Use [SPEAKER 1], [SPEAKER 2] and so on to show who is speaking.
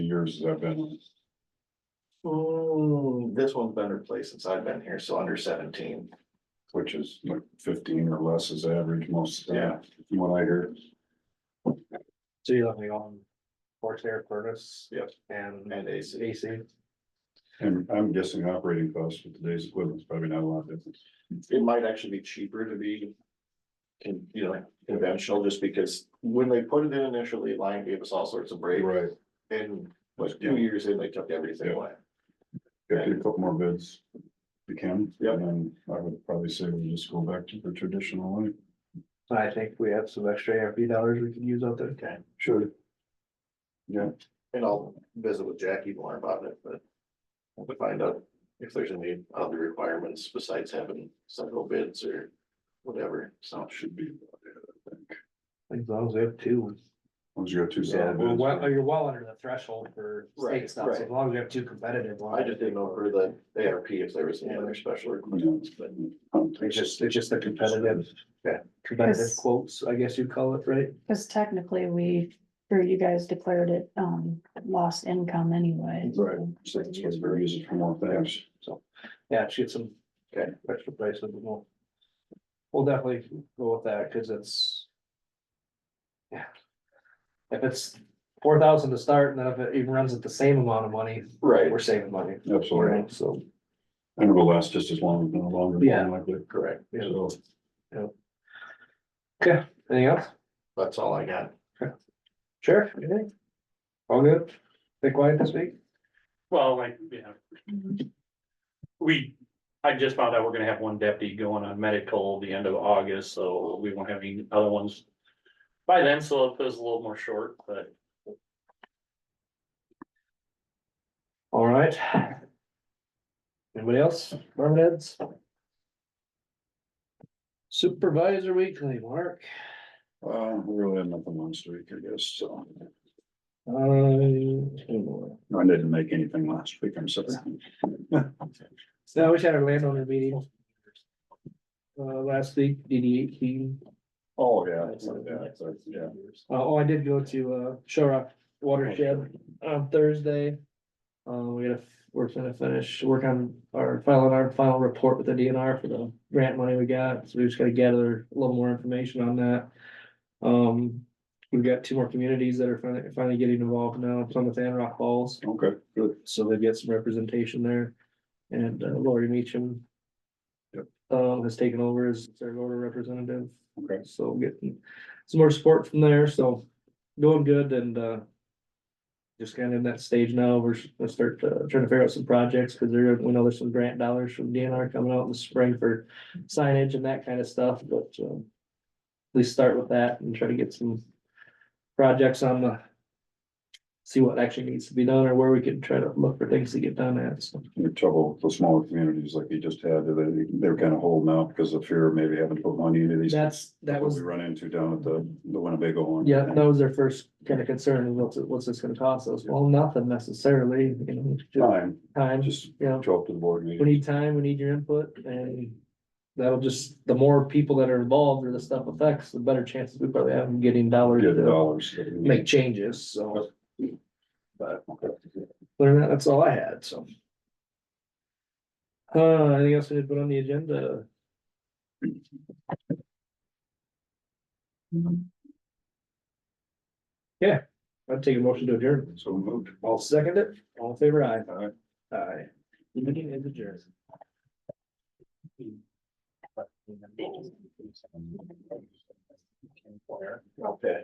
[SPEAKER 1] years that I've been,
[SPEAKER 2] Hmm, this one's been replaced since I've been here, so under seventeen.
[SPEAKER 1] which is like fifteen or less is average most of the time,
[SPEAKER 2] Yeah.
[SPEAKER 1] from what I hear.
[SPEAKER 3] So you have the on forced air furnace
[SPEAKER 2] Yep.
[SPEAKER 3] and
[SPEAKER 2] And AC.
[SPEAKER 3] AC.
[SPEAKER 1] And I'm guessing operating costs with today's equipment is probably not a lot different.
[SPEAKER 2] It might actually be cheaper to be. Can, you know, conventional, just because when they put it in initially, Lion gave us all sorts of breaks
[SPEAKER 1] Right.
[SPEAKER 2] and like two years in, they took everything
[SPEAKER 1] Yeah.
[SPEAKER 2] away.
[SPEAKER 1] Get a couple more bids. if You can.
[SPEAKER 2] Yeah.
[SPEAKER 1] And then I would probably say we just go back to the traditional way.
[SPEAKER 3] I think we have some extra ARP dollars we could use out there.
[SPEAKER 2] Okay,
[SPEAKER 1] Sure. Yeah,
[SPEAKER 2] and I'll visit with Jackie more about it, but. I'll have to find out if there's any other requirements besides having several bids or whatever, so.
[SPEAKER 1] Oh, should be. about it, I think.
[SPEAKER 3] As long as we have two.
[SPEAKER 1] Once you got two
[SPEAKER 3] Yeah,
[SPEAKER 1] solid
[SPEAKER 3] well,
[SPEAKER 1] bids.
[SPEAKER 3] well, you're well under the threshold for
[SPEAKER 2] Right,
[SPEAKER 3] state stuff, so
[SPEAKER 2] right.
[SPEAKER 3] as long as we have two competitive
[SPEAKER 2] I
[SPEAKER 3] ones.
[SPEAKER 2] just didn't know for the ARP if there was any other special requirements, but.
[SPEAKER 3] It's just, it's just the competitive, yeah, competitive
[SPEAKER 4] Yes.
[SPEAKER 3] quotes, I guess you'd call it, right?
[SPEAKER 4] Cause technically we, or you guys declared it, um, lost income anyway.
[SPEAKER 1] Right. So that's what we're using for more things.
[SPEAKER 3] Yeah, she had some.
[SPEAKER 2] Okay.
[SPEAKER 3] Extra prices, but we'll. We'll definitely go with that, cause it's. Yeah. If it's four thousand to start, and then if it even runs at the same amount of money,
[SPEAKER 2] Right,
[SPEAKER 3] we're saving money.
[SPEAKER 1] Absolutely.
[SPEAKER 3] So,
[SPEAKER 1] And it'll last just as long, if not longer.
[SPEAKER 3] Yeah.
[SPEAKER 1] likely.
[SPEAKER 2] correct.
[SPEAKER 3] yeah,
[SPEAKER 1] So,
[SPEAKER 3] okay, anything else?
[SPEAKER 2] That's all I got.
[SPEAKER 3] Sure. anything? All good? Stay quiet this week?
[SPEAKER 5] Well, like, you know, we, I just found out we're gonna have one deputy going on medical the end of August, so we won't have any other ones. By then, so it feels a little more short, but
[SPEAKER 3] All right. Anybody else? Department heads? Supervisor weekly, Mark.
[SPEAKER 1] uh, we really had nothing last week, I guess, so.
[SPEAKER 3] Uh,
[SPEAKER 1] I didn't make anything last week, I'm sorry.
[SPEAKER 3] So we had our landowner meeting. Uh, last week, DD eighteen,
[SPEAKER 1] Oh, yeah, yeah, so, yeah.
[SPEAKER 3] uh, oh, I did go to, uh, Shore Rock Watershed on Thursday. Uh, we gotta, we're gonna finish, work on our, filing our final report with the DNR for the grant money we got, so we just gotta gather a little more information on that. Um, we've got two more communities that are finally, finally getting involved now, Plymouth and Rock Falls.
[SPEAKER 1] Okay, good.
[SPEAKER 3] so they get some representation there. And uh, Lori Meacham.
[SPEAKER 1] Yep.
[SPEAKER 3] Um, has taken over as their order representative,
[SPEAKER 1] Okay.
[SPEAKER 3] so getting some more support from there, so going good and uh. Just kind of in that stage now, we're s- gonna start uh, trying to figure out some projects, cause there, we know there's some grant dollars from DNR coming out in the spring for signage and that kind of stuff, but um. At least start with that and try to get some projects on the see what actually needs to be done or where we can try to look for things to get done at, so.
[SPEAKER 1] Your trouble with the smaller communities like you just had, they, they were kind of holding out because of fear of maybe having to put money into these.
[SPEAKER 3] That's, that
[SPEAKER 1] What
[SPEAKER 3] was,
[SPEAKER 1] We run into down at the, the Winnebago one.
[SPEAKER 3] yeah, that was their first kind of concern, is what's, it- what's this gonna cost us? Well, nothing necessarily, you know, just
[SPEAKER 1] Fine,
[SPEAKER 3] time,
[SPEAKER 1] just
[SPEAKER 3] you know,
[SPEAKER 1] show up to the board
[SPEAKER 3] we
[SPEAKER 1] meeting.
[SPEAKER 3] need time, we need your input, and that'll just, the more people that are involved or the stuff affects, the better chances we probably have of getting dollars
[SPEAKER 1] Get the
[SPEAKER 3] to
[SPEAKER 1] dollars. that we need.
[SPEAKER 3] make changes, so. But,
[SPEAKER 1] Okay.
[SPEAKER 3] other than that, that's all I had, so. Uh, anything else we did put on the agenda? I'd take a motion to adjourn.
[SPEAKER 1] So moved.
[SPEAKER 3] I'll second it. All in favor, aye.
[SPEAKER 1] Aye.
[SPEAKER 3] Aye. Meeting is adjourned.